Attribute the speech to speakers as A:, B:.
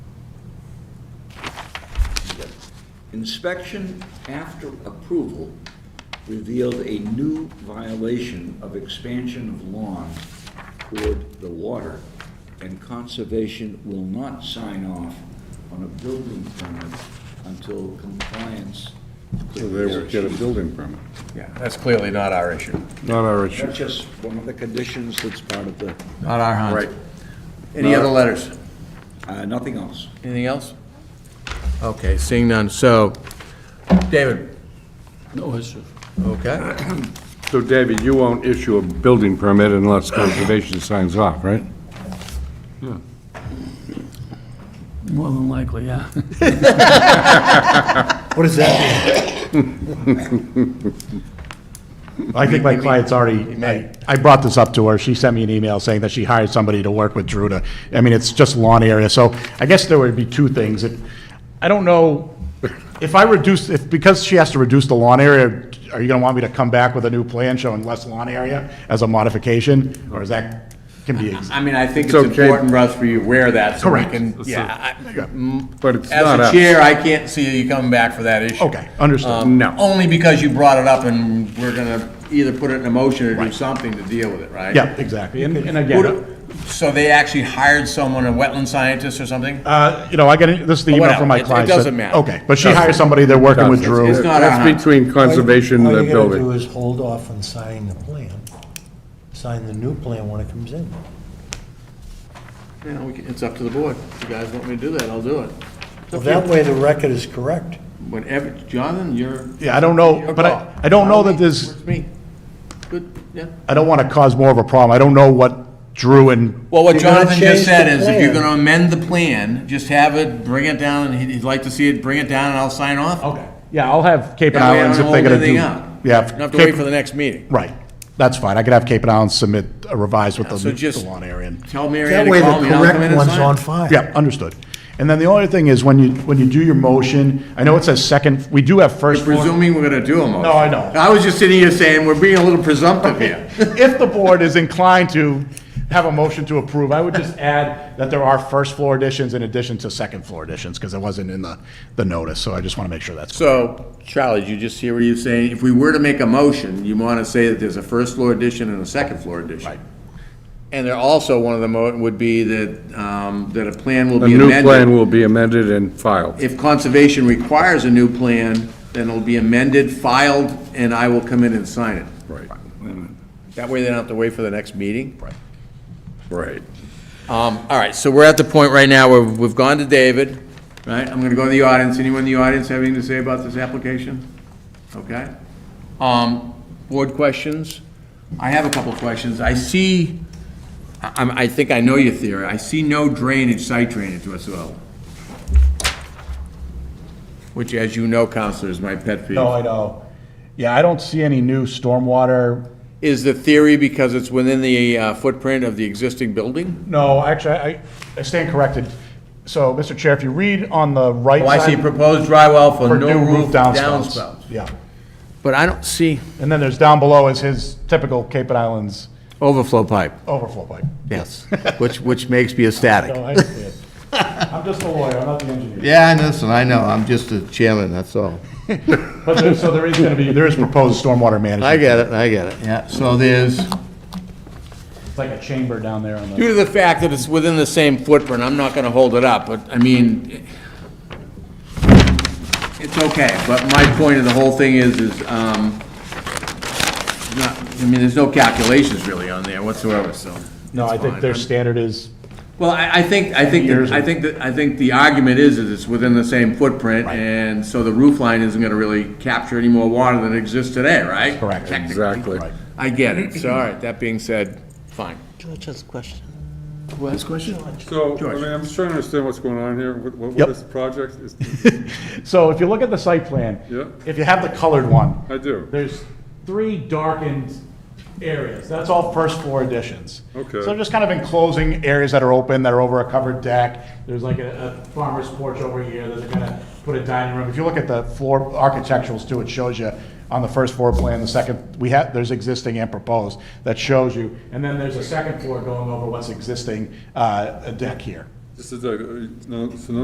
A: Inspection after approval revealed a new violation of expansion of lawn toward the water, and conservation will not sign off on a building permit until compliance.
B: So they would get a building permit.
C: Yeah, that's clearly not our issue.
B: Not our issue.
A: That's just one of the conditions that's part of the,
C: Not our hunt.
B: Right.
C: Any other letters?
A: uh, nothing else.
C: Anything else? Okay, seeing none. So, David?
D: No issue.
C: Okay.
B: So David, you won't issue a building permit unless conservation signs off, right?
D: More than likely, yeah.
C: What does that
E: I think my client's
C: mean?
E: already,
C: May.
E: I brought this up to her, she sent me an email saying that she hired somebody to work with Drew to, I mean, it's just lawn area, so I guess there would be two things. It- I don't know, if I reduce, if, because she has to reduce the lawn area, are you gonna want me to come back with a new plan showing less lawn area as a modification, or is that, can be, ex-
C: I mean, I think it's
B: It's okay.
C: important, Russ, for you to wear that so we
E: Correct.
C: can, yeah. I-
B: But it's not
C: As
B: us.
C: a chair, I can't see you coming back for that issue.
E: okay, understood,
C: Um,
E: no.
C: Only because you brought it up and we're gonna either put it in a motion or do something to deal with it, right?
E: Yeah, exactly, and, and again. uh,
C: Who do- So they actually hired someone, a wetland scientist or something?
E: Uh, you know, I get, it- this is the
C: Oh,
E: email from
C: whatever.
E: my
C: It- it
E: client. so-
C: doesn't matter.
E: Okay, but she hired somebody, they're working with Drew.
C: not our
B: That's
C: hunt.
B: between conservation and the
F: All you gotta do
B: building.
F: is hold off on signing the plan, sign the new plan when it comes in.
C: You know, we can- it's up to the board. If you guys want me to do that, I'll do it.
F: Well, that way the record is correct.
C: Whenever, Jonathan, you're.
E: Yeah, I don't know,
C: your
E: but
C: call.
E: I, I don't know that there's,
C: It's me. Good, yeah.
E: I don't want to cause more of a problem. I don't know what Drew and,
C: Well, what
F: You're gonna
C: Jonathan just
F: change
C: said
F: the
C: is, if you're
F: plan.
C: gonna amend the plan, just have it, bring it down, and he'd- he'd like to see it, bring it down, and I'll sign off. Okay.
E: yeah, I'll have Cape and
C: That way I
E: Islands
C: don't
E: if they're
C: hold
E: going to do.
C: anything up.
E: Yeah.
C: Don't have to wait
E: Cape-
C: for the next meeting.
E: Right, that's fine. I could have Cape and Islands submit a revise with the
C: so just-
E: the lawn area. and-
C: Tell Mary Ann
F: That
C: to
F: way
C: call
F: the
C: me, and I'll come in
F: correct
C: and
F: one's on
C: sign. it.
F: file.
E: Yeah, understood. And then the only thing is, when you, when you do your motion, I know it says second, we do have first floor.
C: Presuming we're gonna do a motion.
E: No, I know.
C: I was just sitting here saying, we're being a little presumptive here.
E: If the board is inclined to have a motion to approve, I would just add that there are first floor additions in addition to second floor additions, because it wasn't in the, the notice, so I just want to make sure that's.
C: So, Charlie, did you just hear what you're saying? If we were to make a motion, you want to say that there's a first floor addition and a second floor addition.
E: Right.
C: And there also, one of the mo, would be that, um, that a plan will
B: The
C: be
B: new plan
C: amended.
B: will be amended and filed.
C: If conservation requires a new plan, then it'll be amended, filed, and I will come in and sign it.
B: Right,
C: That way they don't have to wait for the next meeting. Right.
B: right.
C: Um, all right, so we're at the point right now where we've gone to David, right? I'm gonna go to the audience. Anyone in the audience have anything to say about this application? Okay. Um, board questions? I have a couple of questions. I see, I, I'm- I think I know your theory. I see no drainage, site drainage whatsoever. Which, as you know, Counselor, is my pet peeve.
E: No, I know. Yeah, I don't see any new stormwater.
C: Is the theory because it's within the uh, footprint of the existing building?
E: No, actually, I, I stand corrected. So, Mr. Chair, if you read on the right
C: Oh, I see
E: side.
C: proposed drywall for
E: for
C: no
E: new
C: roof
E: downspouts.
C: downspouts.
E: Yeah.
C: But I don't see.
E: And then there's down below is his typical Cape and Islands
C: Overflow pipe.
E: overflow pipe.
C: Yes. Which, which makes me ecstatic.
E: No, I understand. I'm just a lawyer, I'm not the engineer.
C: Yeah, I know, so I know, I'm just a chairman, that's all.
E: But there, so there is gonna be, there is proposed stormwater
C: I
E: management.
C: get it, I get it. Yeah, so there's.
E: It's like a chamber down there on the.
C: Due to the fact that it's within the same footprint, I'm not gonna hold it up, but, I mean, it's okay, but my point of the whole thing is, is, um, not, I mean, there's no calculations really on there whatsoever, so.
E: No, I
C: it's
E: think
C: fine.
E: their standard is,
C: Well, I, I think, I think,
E: Years
C: that-
E: of-
C: I think, that I think the argument is that it's within the same footprint, and so the roof line isn't gonna really capture any more water than exists today, right?
E: Correct.
C: Technically.
B: Exactly.
E: Right.
C: I get it, so, all right, that being said, fine.
F: George's question.
C: Last question?
G: So, I mean, I'm just trying to understand what's going on here. What, what-
E: Yep.
G: what is the project? Is-
E: so if you look at the site plan.
G: Yeah.
E: If you have the colored one.
G: I do.
E: There's three darkened areas, that's all first floor additions.
G: Okay.
E: So just kind of enclosing areas that are open, that are over a covered deck, there's like a, a farmer's porch over here, that they're gonna put a dining room. If you look at the floor architecturals too, it shows you on the first floor plan, the second, we have, there's existing and proposed, that shows you. And then there's a second floor going over what's existing, uh, a deck here.
G: This is, a- no, so no